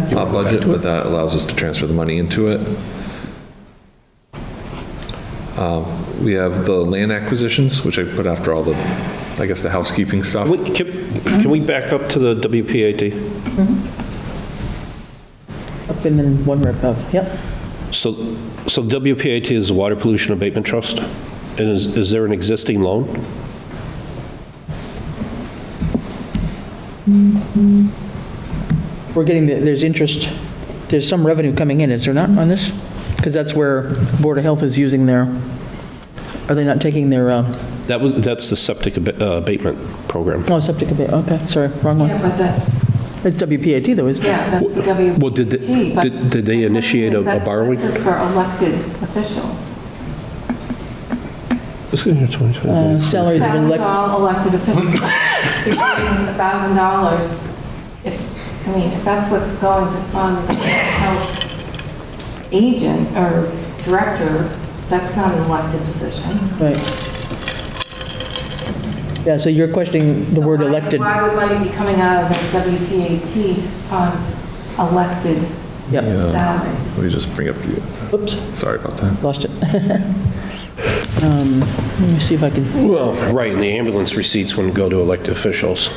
Not budget, but that allows us to transfer the money into it. Um, We have the land acquisitions, which I put after all the, I guess, the housekeeping stuff. Wait, Can can we back up to the WPAT? Up and then one right above, yep. So, so WPAT is the Water Pollution Abatement Trust? And is, is there an existing loan? We're getting, the- there's interest, there's some revenue coming in, is there not, on this? Because that's where Board of Health is using their, are they not taking their, uh, That was, that's the septic ab- uh, abatement program. oh, septic abate, okay, sorry, wrong Yeah, one. but that's, It's WPAT though, isn't it? yeah, that's the WPT. Well, did they- but did- did they the initiate a- question is a that borrowing? This is for elected officials. Uh, Salaries have been Salaries left, all elected officials. So you're putting $1,000 if, I mean, if that's what's going to fund the health agent or director, that's not an elected position. right. Yeah, so you're questioning the So word why- elected. Why would money be coming out of the WPAT to fund elected Yep, salaries? Let me just bring up the, oops, sorry about that. lost it. Um, Let me see if I can, Well, right, and the ambulance receipts wouldn't go to elected officials.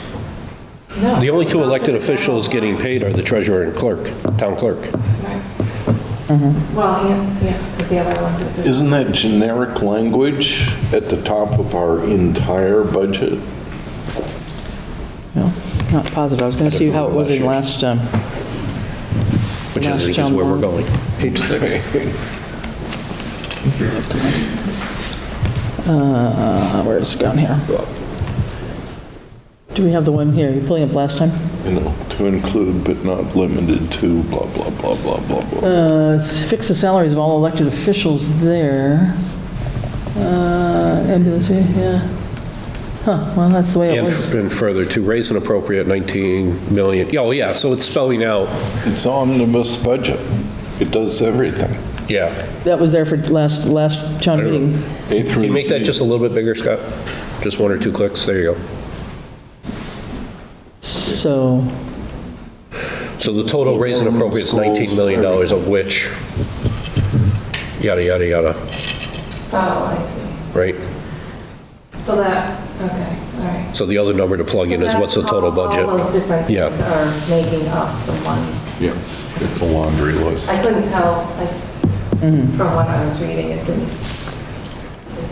No. The only two elected officials getting paid are the treasurer and clerk, town clerk. Right. Mm-hmm. Well, yeah, yeah, because the other elected officials. Isn't that generic language at the top of our entire budget? no, not positive, I was going to see how it was in last, um, Which Last is, is town where we're hall. going. Page six. Uh, where is it gone here? Do we have the one here? You pulling up last time? You know, to include but not limited to blah, blah, blah, blah, blah, blah. Uh, it's Fix the salaries of all elected officials there. Uh, Ambulance, yeah. Huh, well, that's the way it And was. and further, to raise an appropriate 19 million, oh, yeah, so it's spelling out, It's omnibus budget. It does everything. yeah. That was there for last, last town meeting. A through Can you make that Z. just a little bit bigger, Scott? Just one or two clicks, there you go. So, So the total raise and appropriate is $19 million, of which, yada, yada, yada, Oh, I see. right? So that, okay, all right. So the other number to plug in is what's the total That's budget? All those different things Yeah. are making up the one. Yeah, it's a laundry list. I couldn't tell, like, Mm-hmm. from what I was reading, it didn't.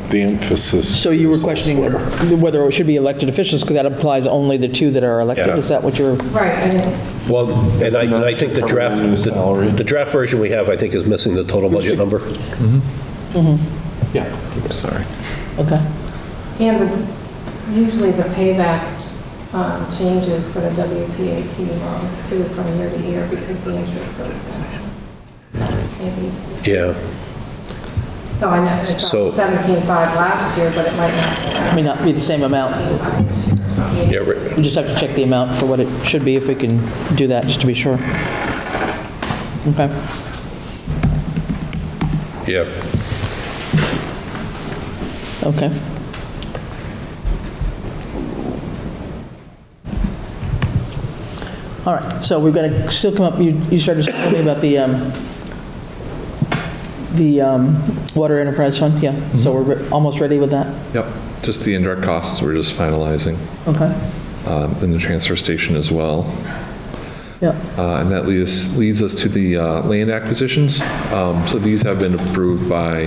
The emphasis. so you were is questioning elsewhere. the- whether it should be elected officials, because that implies only the two that are elected? Yeah. Is that what you're, Right, I didn't. Well, and I, and I think the draft, Permanent salary. the the draft version we have, I think, is missing the total budget number. Yeah, sorry. okay. And the- usually the payback um, changes for the WPAT loans too from year to year because the interest goes down. Maybe it's- Yeah. So I know it's So- 17.5 last year, but it might not May not be the same amount. be 17.5. Yeah, right. We just have to check the amount for what it should be, if we can do that, just to be sure. Okay. yeah. Okay. All right, so we've got to still come up, you you started to tell me about the, um, the um, Water Enterprise Fund, yeah, Mm-hmm. so we're re- almost ready with that? Yep, just the indirect costs, we're just finalizing, Okay, um, and the transfer station as well. yeah, Uh, And that leads, leads us to the uh, land acquisitions. Um, So these have been approved by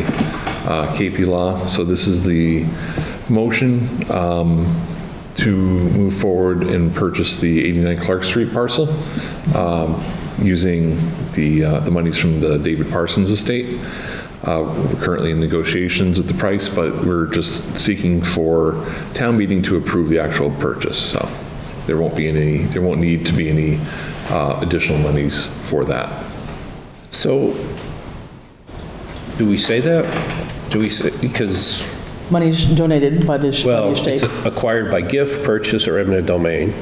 uh, KP Law. So this is the motion um, to move forward and purchase the 89 Clark Street parcel um, using the, uh, the monies from the David Parsons estate. Uh, We're currently in negotiations with the price, but we're just seeking for town meeting to approve the actual purchase. So there won't be any, there won't need to be any uh, additional monies for that. So, do we say that? Do we say, because, money's donated by this by well, the it's state. acquired by gift, purchase, or eminent domain,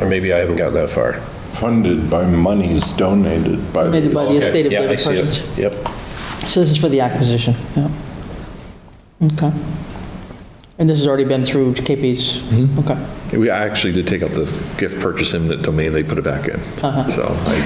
or maybe I haven't got that far. Funded by monies donated by. Donated by the state. estate of Yeah, I David see it. Parsons. Yep. So this is for the acquisition, yeah. Okay. And this has already been through KP's? Okay. We actually did take out the gift purchase eminent domain, they put it back in. So I